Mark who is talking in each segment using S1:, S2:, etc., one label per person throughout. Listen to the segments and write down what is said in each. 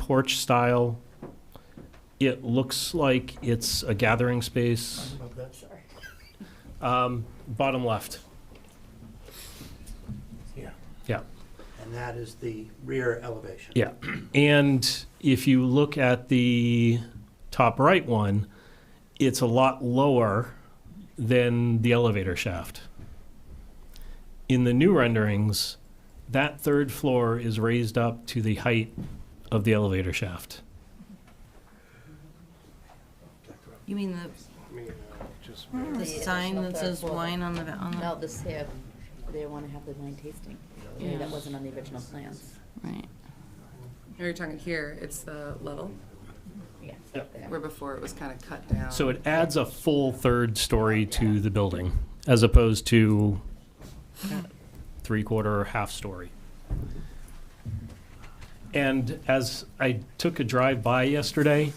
S1: porch style. It looks like it's a gathering space.
S2: Sorry.
S1: Um, bottom left.
S2: Here.
S1: Yeah.
S2: And that is the rear elevation.
S1: Yeah. And if you look at the top right one, it's a lot lower than the elevator shaft. In the new renderings, that third floor is raised up to the height of the elevator shaft.
S3: You mean
S4: uh,
S5: Hmm.
S3: the, the sign that says wine on the, va- on the,
S6: No, this here, they want to have the wine tasting.
S3: Yeah.
S6: That wasn't on the original plans.
S3: right?
S7: Now you're talking here, it's the level,
S6: Yeah.
S1: Yeah.
S7: where before it was kind of cut down.
S1: So it adds a full third story to the building as opposed to three quarter or half story. And as I took a drive by yesterday,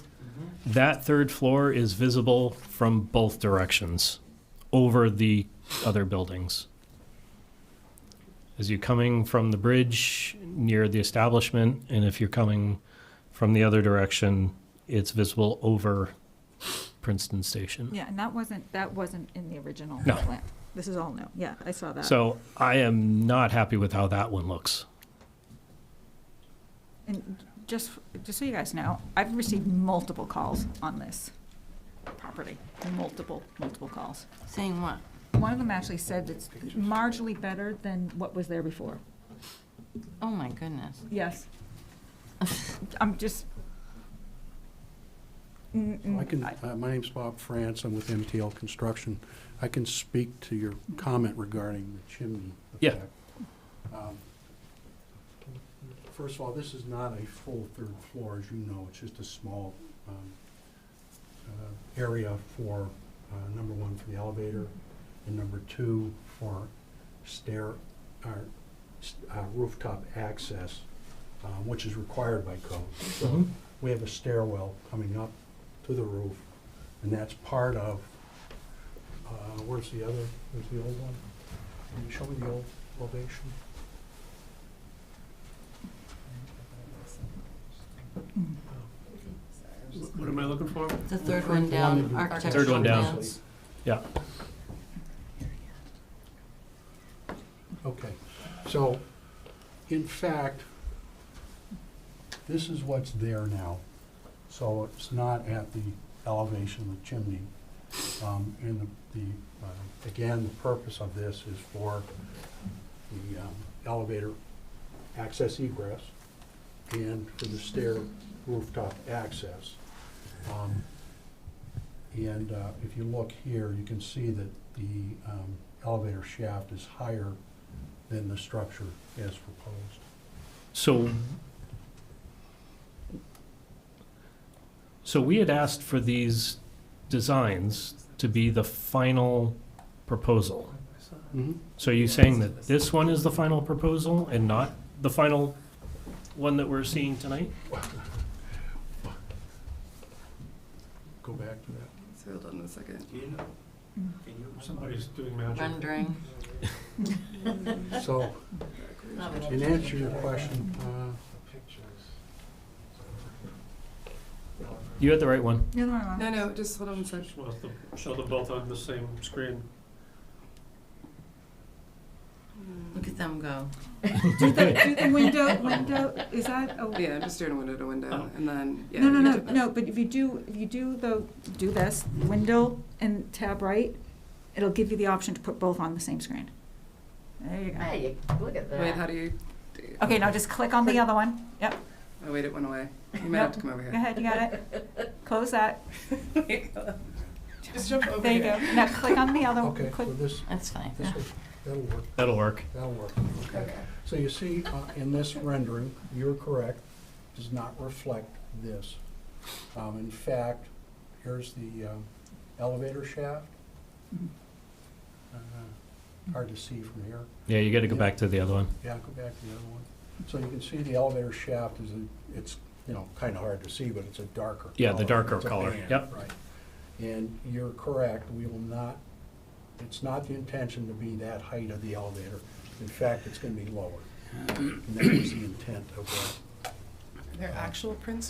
S1: that third floor is visible from both directions over the other buildings. As you're coming from the bridge near the establishment, and if you're coming from the other direction, it's visible over Princeton Station.
S5: Yeah, and that wasn't, that wasn't in the original
S1: No.
S5: plan. This is all new. Yeah, I saw that.
S1: So I am not happy with how that one looks.
S5: And just, just so you guys know, I've received multiple calls on this property, multiple, multiple calls.
S3: Saying what?
S5: One of them actually said it's marginally better than what was there before.
S3: Oh, my goodness.
S5: Yes. I'm just. Mm, mm.
S8: I can, uh, my name's Bob France, I'm with MTL Construction. I can speak to your comment regarding the chimney.
S1: Yeah.
S8: effect. Um, First of all, this is not a full third floor, as you know, it's just a small um, uh, area for, uh, number one, for the elevator, and number two, for stair, or s- uh, rooftop access, uh, which is required by code. So we have a stairwell coming up to the roof, and that's part of, uh, where's the other, where's the old one? Can you show me the old elevation?
S4: What am I looking for?
S3: The third one down, architectural
S1: Third one down.
S3: plans.
S1: Yeah.
S8: Okay, so, in fact, this is what's there now, so it's not at the elevation of the chimney. Um, and the, the, uh, again, the purpose of this is for the um, elevator access egress and for the stair rooftop access. Um, And uh, if you look here, you can see that the um, elevator shaft is higher than the structure as proposed.
S1: So, so we had asked for these designs to be the final proposal. So you saying that this one is the final proposal and not the final one that we're seeing tonight?
S8: Go back to that.
S7: So hold on a second.
S4: Do you know?
S5: Hmm.
S4: Can you, somebody's doing magic.
S3: Rendering.
S8: So,
S6: Not really.
S8: in answer to your question, uh,
S1: You had the right one.
S5: The other one I want-
S7: No, no, just hold on a second.
S4: Just wants to show them both on the same screen.
S3: Look at them go.
S5: Do the, do the window, window, is that a?
S7: Yeah, I'm just doing window to window,
S4: Oh.
S7: and then, yeah.
S5: No, no,
S7: you
S5: no,
S7: did that.
S5: no, but if you do, if you do the, do this, window and tab right, it'll give you the option to put both on the same screen. There you go.
S6: Hey, look at
S7: Wait, how
S6: that.
S7: do you, do you-
S5: Okay, now just click on the other one. Yep,
S7: oh, wait, it went away. You might have to come over
S5: go
S7: here.
S5: ahead, you got it. Close that.
S7: Just jump over
S5: There you go. Now click on the other,
S8: okay,
S5: one.
S8: so
S5: click
S8: this,
S3: That's fine.
S8: this, will- that'll work,
S1: That'll work.
S8: that'll work.
S7: Okay.
S8: So you see, uh, in this rendering, you're correct, does not reflect this. Um, In fact, here's the um, elevator shaft. Uh, Hard to see from here.
S1: Yeah, you gotta go back to the other one.
S8: Yeah, go back to the other one. So you can see the elevator shaft is, a- it's, you know, kind of hard to see, but it's a darker color.
S1: Yeah, the darker
S8: It's a
S1: color,
S8: band,
S1: yep.
S8: Right. And you're correct, we will not, it's not the intention to be that height of the elevator. In fact, it's going to be lower. And that was the intent of what
S7: They're actual prints